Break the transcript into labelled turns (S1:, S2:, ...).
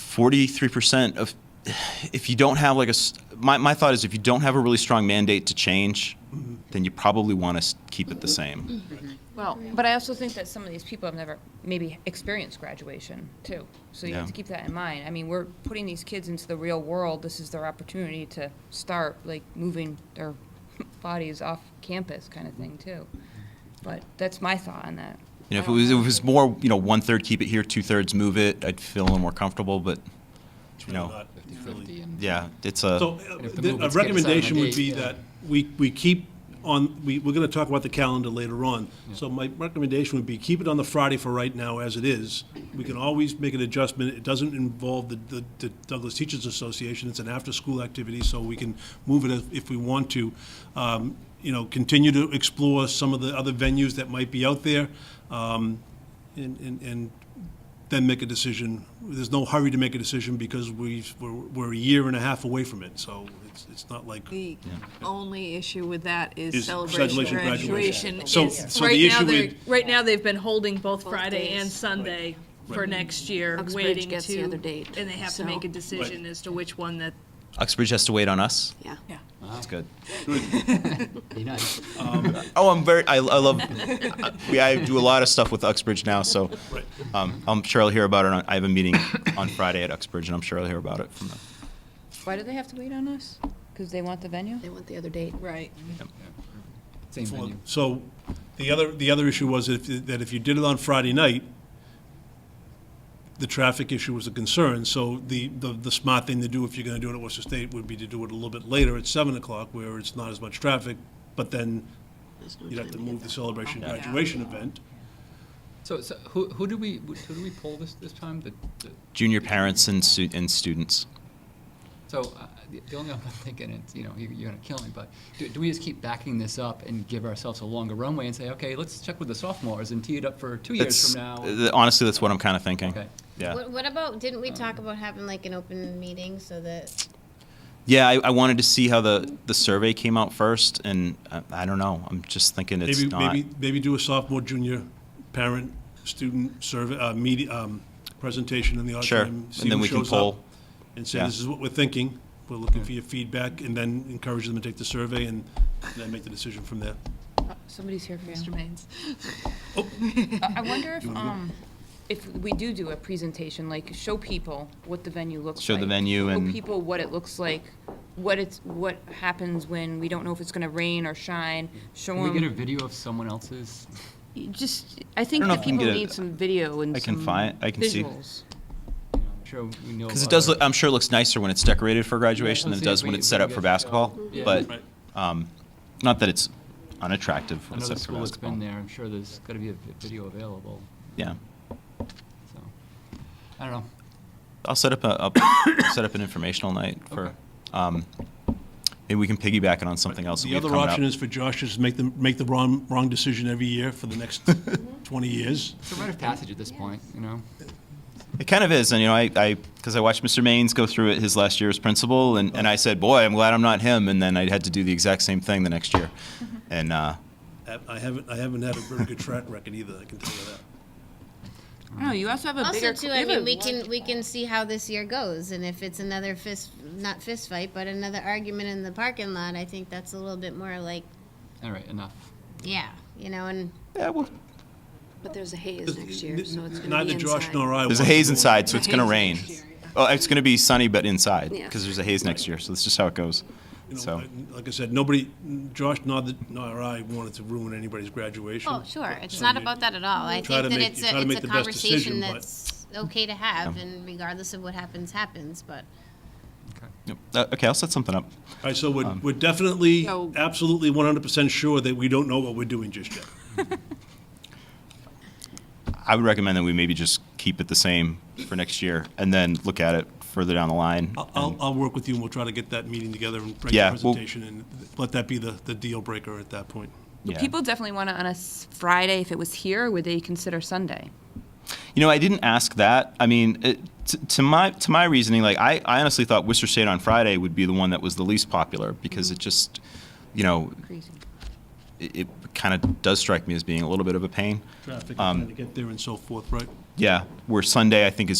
S1: 43% of if you don't have like a s- my, my thought is if you don't have a really strong mandate to change then you probably want to keep it the same
S2: Well, but I also think that some of these people have never maybe experienced graduation too. So you have
S1: Yeah.
S2: to keep that in mind. I mean, we're putting these kids into the real world. This is their opportunity to start like moving their bodies off campus kind of thing too. But that's my thought on that.
S1: you know if
S2: I
S1: it
S2: don't
S1: was, if
S2: know.
S1: it was more you know one third keep it here two thirds move it i'd feel a little more comfortable but you know
S3: Not really.
S4: 50/50 and.
S1: yeah it's a
S3: So uh,
S4: And if the
S3: the- a
S4: movement's getting
S3: recommendation
S4: signed on
S3: would be
S4: date, yeah.
S3: that we, we keep on, we, we're going to talk about the calendar later on. So my recommendation would be keep it on the Friday for right now as it is. We can always make an adjustment. It doesn't involve the- the, the Douglas Teachers Association. It's an after-school activity, so we can move it if- if we want to. Um, You know, continue to explore some of the other venues that might be out there. um, And, and, and then make a decision. There's no hurry to make a decision because we've, we're, we're a year and a half away from it, so it's, it's not like.
S5: The only issue with that is
S3: Is
S5: celebration
S3: graduation, graduation.
S5: graduation.
S3: So-
S5: is-
S3: so the
S6: right now
S3: issue
S6: they're
S3: with-
S6: right now they've been holding both Friday
S5: days.
S6: and Sunday for next year,
S5: Uxbridge
S6: waiting
S5: gets
S6: to
S5: the other date,
S6: and they have
S5: so-
S6: to make a decision as to which one that
S1: uxbridge has to wait on us
S5: Yeah.
S1: that's good
S4: Be nice.
S1: oh i'm very i, I love we, i do a lot of stuff with uxbridge now so
S3: Right.
S1: um, i'm sure i'll hear about it on, i have a meeting on friday at uxbridge and i'm sure i'll hear about it from them
S2: Why do they have to wait on us? Because they want the venue?
S5: They want the other date.
S6: right.
S4: Same venue.
S3: So the other, the other issue was if, that if you did it on Friday night, the traffic issue was a concern, so the, the, the smart thing to do if you're gonna do it at Worcester State would be to do it a little bit later at seven o'clock where it's not as much traffic, but then you'd have to move the celebration graduation event.
S4: So, so who, who did we, who did we poll this, this time? The, the,
S1: junior parents and, stu- and students
S4: so, uh, the the only thing I'm thinking is, you know, you're, you're gonna kill me, but do, do we just keep backing this up and give ourselves a longer runway and say, okay, let's check with the sophomores and tee it up for two
S1: That's-
S4: years from now?
S1: th- Honestly, that's what I'm kind of thinking.
S4: Okay.
S1: Yeah.
S7: What, what about, didn't we talk about having like an open meeting so that,
S1: Yeah, I, I wanted to see how the, the survey came out first, and I, I don't know. I'm just thinking it's
S3: Maybe,
S1: not.
S3: maybe, maybe do a sophomore, junior, parent, student survey, uh, media, um, presentation in the
S1: Sure,
S3: auditorium. see
S1: and then
S3: who
S1: we can
S3: shows up,
S1: poll.
S3: And say,
S1: yeah.
S3: this is what we're thinking, we're looking for your feedback, and then encourage them to take the survey and then make the decision from there.
S2: Somebody's here for you.
S6: Mr. Maines.
S2: I I wonder if, um, if we do do a presentation, like show people what the venue looks like.
S1: Show the venue and-
S2: Show people what it looks like, what it's, what happens when we don't know if it's gonna rain or shine, show
S4: Can we get a
S2: them.
S4: video of someone else's?
S2: Just, I think
S1: I don't know
S2: that
S1: if we can
S2: people
S1: get a-
S2: need some video and
S1: I can
S2: some
S1: find- I can see.
S2: visuals.
S4: you know, I'm Sure, we know.
S1: Because it
S4: about
S1: does
S4: our-
S1: look, I'm sure it looks nicer when it's decorated for graduation
S4: Yeah,
S1: than it
S4: let's
S1: does
S4: see if
S1: when
S4: we-
S1: it's
S4: if
S1: set
S4: we
S1: up
S4: get
S1: for
S4: to go.
S1: basketball.
S4: Yeah.
S1: But um, not that it's unattractive when it's
S4: Another
S1: set up for
S4: school that's been
S1: basketball.
S4: there, I'm sure there's gotta be a vi- video available,
S1: Yeah.
S4: so, I don't know.
S1: I'll set up a, a set up an informational night for.
S4: Okay.
S1: Um, maybe we can piggyback it on something else. that
S3: The
S1: we have
S3: other
S1: coming up.
S3: option is for Josh to just make the, make the wrong, wrong decision every year for the next 20 years.
S4: It's a rite of passage at this point, you know?
S1: It kind of is, and you know, I, I, because I watched Mr. Maines go through it his last year as principal, and, and I said, boy, I'm glad I'm not him, and then I had to do the exact same thing the next year, and uh,
S5: Mm-hmm.
S3: I I haven't, I haven't had a very good track record either, I can tell you that.
S2: No, you also have a bigger.
S7: also too, I mean, we can, we can see how this year goes. And if it's another fist, not fist fight, but another argument in the parking lot, I think that's a little bit more like,
S4: All right, enough.
S7: yeah, you know, and
S1: yeah, well,
S5: But there's a haze next year, so it's going to be
S3: Neither Josh
S5: inside.
S3: nor I.
S1: there's a
S3: want
S1: haze
S3: to-
S1: inside, so it's gonna rain. Oh, it's gonna be sunny but inside
S5: Yeah.
S1: because there's a haze next year, so that's just how it goes.
S3: you know,
S1: So
S3: like- Like I said, nobody, Josh nor, nor I wanted to ruin anybody's graduation.
S7: oh, sure, it's not about that at all. I
S3: Try to
S7: think that
S3: make-
S7: it's
S3: you try to
S7: a,
S3: make
S7: it's
S3: the
S7: a
S3: best decision, but-
S7: conversation that's okay to have and regardless of what happens, happens, but.
S1: yep. Uh, okay, I'll set something up.
S3: All right, so
S1: Um,
S3: we're, we're definitely,
S5: So-
S3: absolutely 100% sure that we don't know what we're doing just yet.
S1: I would recommend that we maybe just keep it the same for next year, and then look at it further down the line.
S3: I'll- I'll, I'll work with you, and we'll try to get that meeting together and bring the
S1: Yeah, we'll-
S3: presentation, and let that be the, the deal breaker at that point.
S1: Yeah.
S2: People definitely wanna, on a s- Friday, if it was here, would they consider Sunday?
S1: You know, I didn't ask that. I mean, it, t- to my to my reasoning, like I, I honestly thought Worcester State on Friday would be the one that was the least popular because it just, you know,
S2: Crazy.
S1: it, it kind of does strike me as being a little bit of a pain.
S3: Traffic, trying to get there and so forth, right?
S1: Yeah, where Sunday I think is